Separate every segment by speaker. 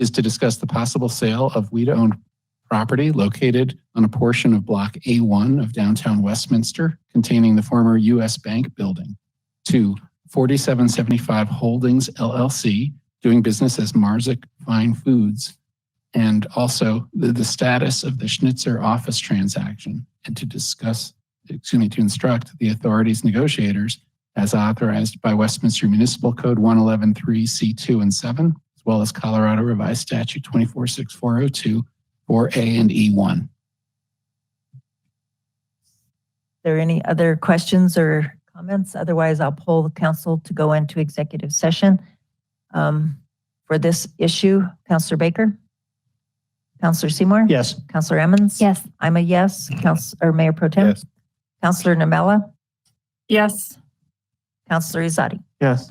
Speaker 1: is to discuss the possible sale of WIDA-owned property located on a portion of Block A1 of downtown Westminster containing the former U.S. Bank Building to 4775 Holdings LLC, doing business as Marzick Fine Foods, and also the, the status of the Schnitzer office transaction, and to discuss, excuse me, to instruct the authorities negotiators as authorized by Westminster Municipal Code 1113C2 and 7, as well as Colorado Revised Statute 246402, 4A and E E1.
Speaker 2: there any other questions or comments? Otherwise, I'll poll the council to go into executive session um, for this issue. Counselor Baker? Counselor Seymour?
Speaker 1: Yes.
Speaker 2: Counselor Emmons?
Speaker 3: Yes.
Speaker 2: I'm a yes. Counselor, or Mayor Pro Tem?
Speaker 1: Yes.
Speaker 2: Counselor Namella?
Speaker 3: Yes.
Speaker 2: Counselor Izadi?
Speaker 1: Yes.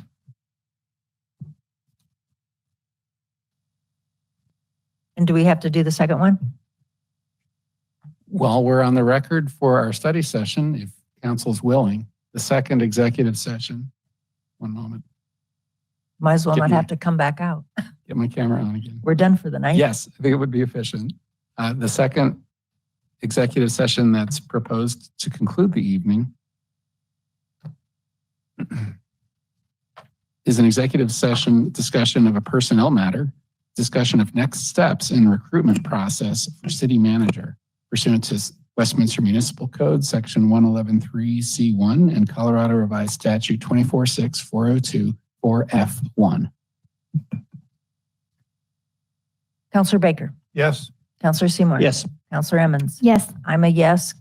Speaker 2: And do we have to do the second one?
Speaker 1: While we're on the record for our study session, if council's willing, the second executive session. One moment,
Speaker 2: Might as well
Speaker 1: Get
Speaker 2: not
Speaker 1: me.
Speaker 2: have to come back out.
Speaker 1: get my camera on again.
Speaker 2: We're done for the night.
Speaker 1: Yes, I think it would be efficient. Uh, The second executive session that's proposed to conclude the evening is an executive session discussion of a personnel matter, discussion of next steps in recruitment process for city manager pursuant to Westminster Municipal Code, Section 1113C1 and Colorado Revised Statute 246402, 4F1.
Speaker 2: Counselor Baker?
Speaker 1: Yes.
Speaker 2: Counselor Seymour? Counselor Emmons?
Speaker 3: Yes.
Speaker 2: I'm a yes.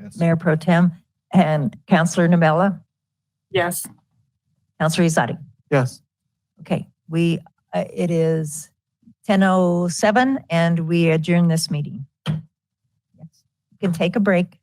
Speaker 1: Yes.
Speaker 2: Mayor Pro Tem and Counselor Namella?
Speaker 3: Yes.
Speaker 2: Counselor Izadi?
Speaker 1: Yes.
Speaker 2: Okay, we, uh, it is 10:07 and we adjourn this meeting. Yes, You can take a break.